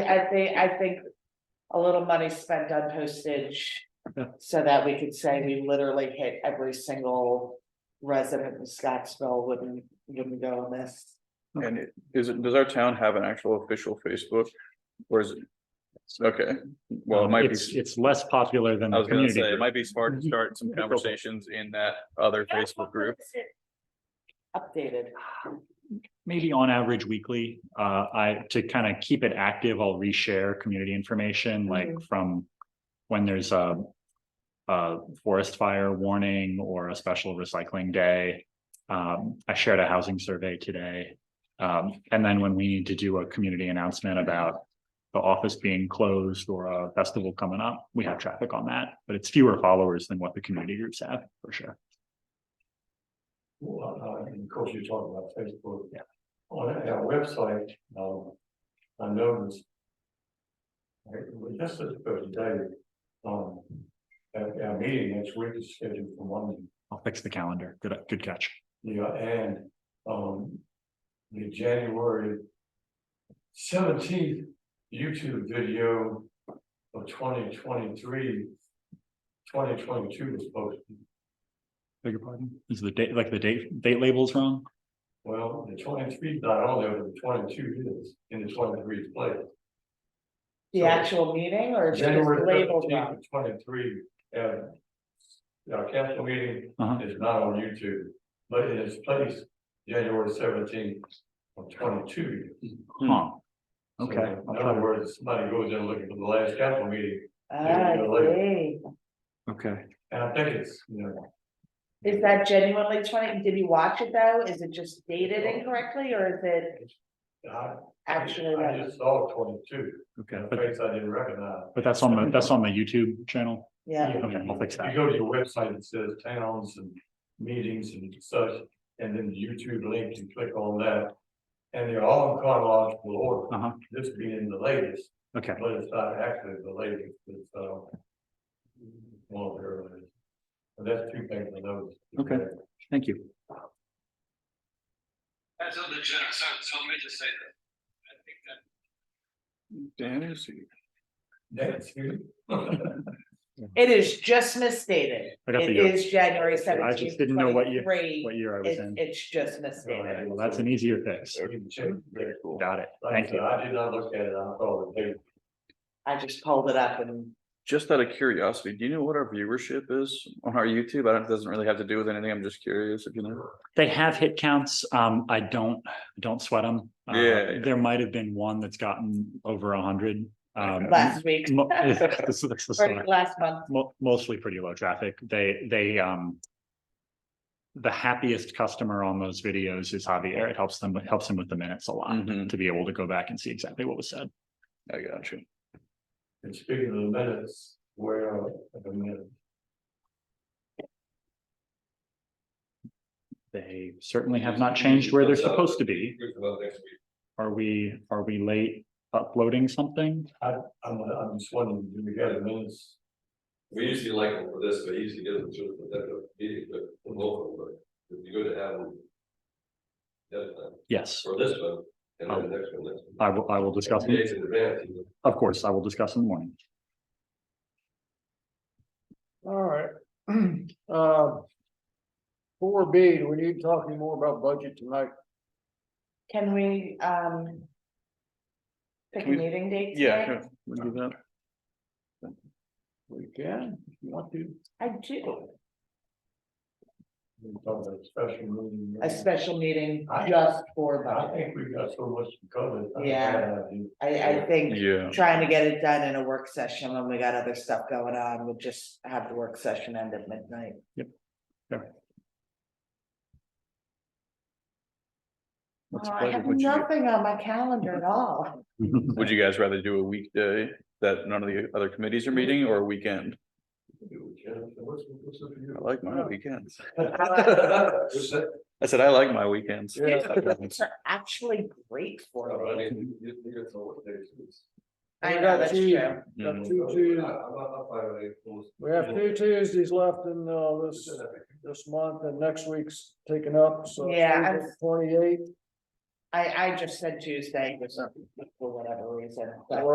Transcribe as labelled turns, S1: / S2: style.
S1: I, I think, I think a little money spent on postage.
S2: Yeah.
S1: So that we could say we literally hit every single resident in Scottsville wouldn't, wouldn't go on this.
S3: And it- is it, does our town have an actual official Facebook? Or is it? Okay, well, it might be,
S2: It's, it's less popular than
S3: I
S2: the
S3: was gonna
S2: community.
S3: say, it
S2: group.
S3: might be smart to start some conversations in that other Facebook group.
S1: Updated.
S2: Maybe on average weekly, uh, I, to kind of keep it active, I'll reshare community information, like from when there's a a forest fire warning or a special recycling day. Um, I shared a housing survey today. Um, and then when we need to do a community announcement about the office being closed or a festival coming up, we have traffic on that, but it's fewer followers than what the community groups have, for sure.
S4: Well, uh, and of course, you're talking about Facebook. Yeah. On our website, um, I noticed. Right, it was just this thirty day, um, our, our meeting next week is scheduled for Monday,
S2: I'll fix the calendar. Good, good catch.
S4: yeah, and, um. The January. Seventeenth YouTube video of 2023, 2022 was posted,
S2: Beg your pardon? Is the date, like the date, date labels wrong?
S4: well, the twenty-three, not only, but the twenty-two is, in the twenty-three place.
S1: The
S4: So-
S1: actual meeting or just
S4: January
S1: labeled wrong?
S4: thirteenth, twenty-three, and. Our council meeting
S2: Uh-huh.
S4: is not on YouTube, but it is placed January seventeenth of twenty-two.
S2: Huh.
S4: So,
S2: Okay.
S4: In other words, somebody goes in looking for the last council meeting,
S1: Ah, I see.
S2: Okay.
S4: and I think it's, you know,
S1: Is that genuinely twenty? Did you watch it though? Is it just dated incorrectly or is it
S4: I.
S1: actually?
S4: I
S1: right?
S4: just saw twenty-two,
S2: Okay.
S4: and a
S2: But,
S4: face I didn't recognize.
S2: but that's on the, that's on the YouTube channel.
S1: Yeah,
S2: Okay, I'll fix
S4: You
S2: that.
S4: go to your website, it says towns and meetings and such, and then the YouTube link, you click on that. And they're all in chronological order.
S2: Uh huh.
S4: this being the latest,
S2: Okay.
S4: but it's not actually the latest, it's, uh, one of the earliest. And that's two things I noticed.
S2: Okay. Thank you.
S5: That's a legitimate, so, so let me just say that. I think that
S3: Dan is,
S4: That's you.
S1: it is just misstated.
S2: I got the
S1: It
S2: year.
S1: is January
S2: I
S1: seventeenth.
S2: just didn't know what year, what year I was
S1: It's,
S2: in.
S1: it's just misstated.
S2: Okay, Well, that's an easier fix.
S4: You can check.
S3: very cool.
S2: Got it.
S4: Like I
S2: Thank
S4: said,
S2: you.
S4: I did not look at it, I thought it was.
S1: I just pulled it up and
S3: Just out of curiosity, do you know what our viewership is on our YouTube? I don't, it doesn't really have to do with anything. I'm just curious if you know.
S2: They have hit counts. Um, I don't, don't sweat them.
S3: Yeah, yeah.
S2: There might have been one that's gotten over a hundred. Um,
S1: last week,
S2: mo- this is- this is-
S1: or last month,
S2: mo- mostly pretty low traffic. They, they, um. The happiest customer on those videos is Javier. It helps them, it helps him with the minutes a lot
S3: Mhm,
S2: to be able to go back and see exactly what was said.
S3: I got you.
S4: And speaking of the minutes, where, are the minutes?
S2: They certainly have not changed where they're supposed to be. Are we, are we late uploading something?
S4: I'm, I'm just wondering, do we get a minutes?
S6: We usually like them for this, but usually get them to the meeting, but the local, but it'd be good to have them. That time,
S2: Yes,
S6: for this one, and then the next one, next one.
S2: I will, I will discuss, them.
S6: Days in advance, you know.
S2: of course, I will discuss in the morning.
S7: All right, Um Four B, do we need to talk any more about budget tonight?
S1: can we, um. Pick a
S3: We-
S1: meeting date?
S3: Yeah,
S1: today?
S3: sure. We'll do that.
S7: We can, if you want to.
S1: I do,
S4: We talked about special meeting.
S1: a special meeting
S4: I-
S1: just for
S4: I
S1: budget.
S4: think we've got so much to cover. I-
S1: Yeah. I, I think
S3: Yeah.
S1: trying to get it done in a work session when we got other stuff going on, we'll just have the work session end at midnight.
S2: Yep. Fair.
S1: Oh,
S3: What's
S1: I
S3: pleasure,
S1: have
S3: would you-
S1: nothing on my calendar at all.
S3: Would you guys rather do a weekday that none of the other committees are meeting or a weekend?
S4: What's, what's up
S3: I
S4: to
S3: like my weekends.
S4: you?
S3: I said, I like my weekends.
S1: It's actually great
S4: Oh,
S1: for
S6: I
S1: me.
S6: mean, you- you get to know what days it is.
S1: I know, that's true.
S7: We have
S3: Mhm.
S7: two
S6: I-
S7: Tues-
S6: I'm not- I'm fine with it, close.
S7: we have two Tuesdays left in, uh, this,
S6: Just-
S7: this month and next week's taken up, so.
S1: Yeah, I'm-
S7: Twenty-eight,
S1: I, I just said Tuesday for some, for whatever reason, but.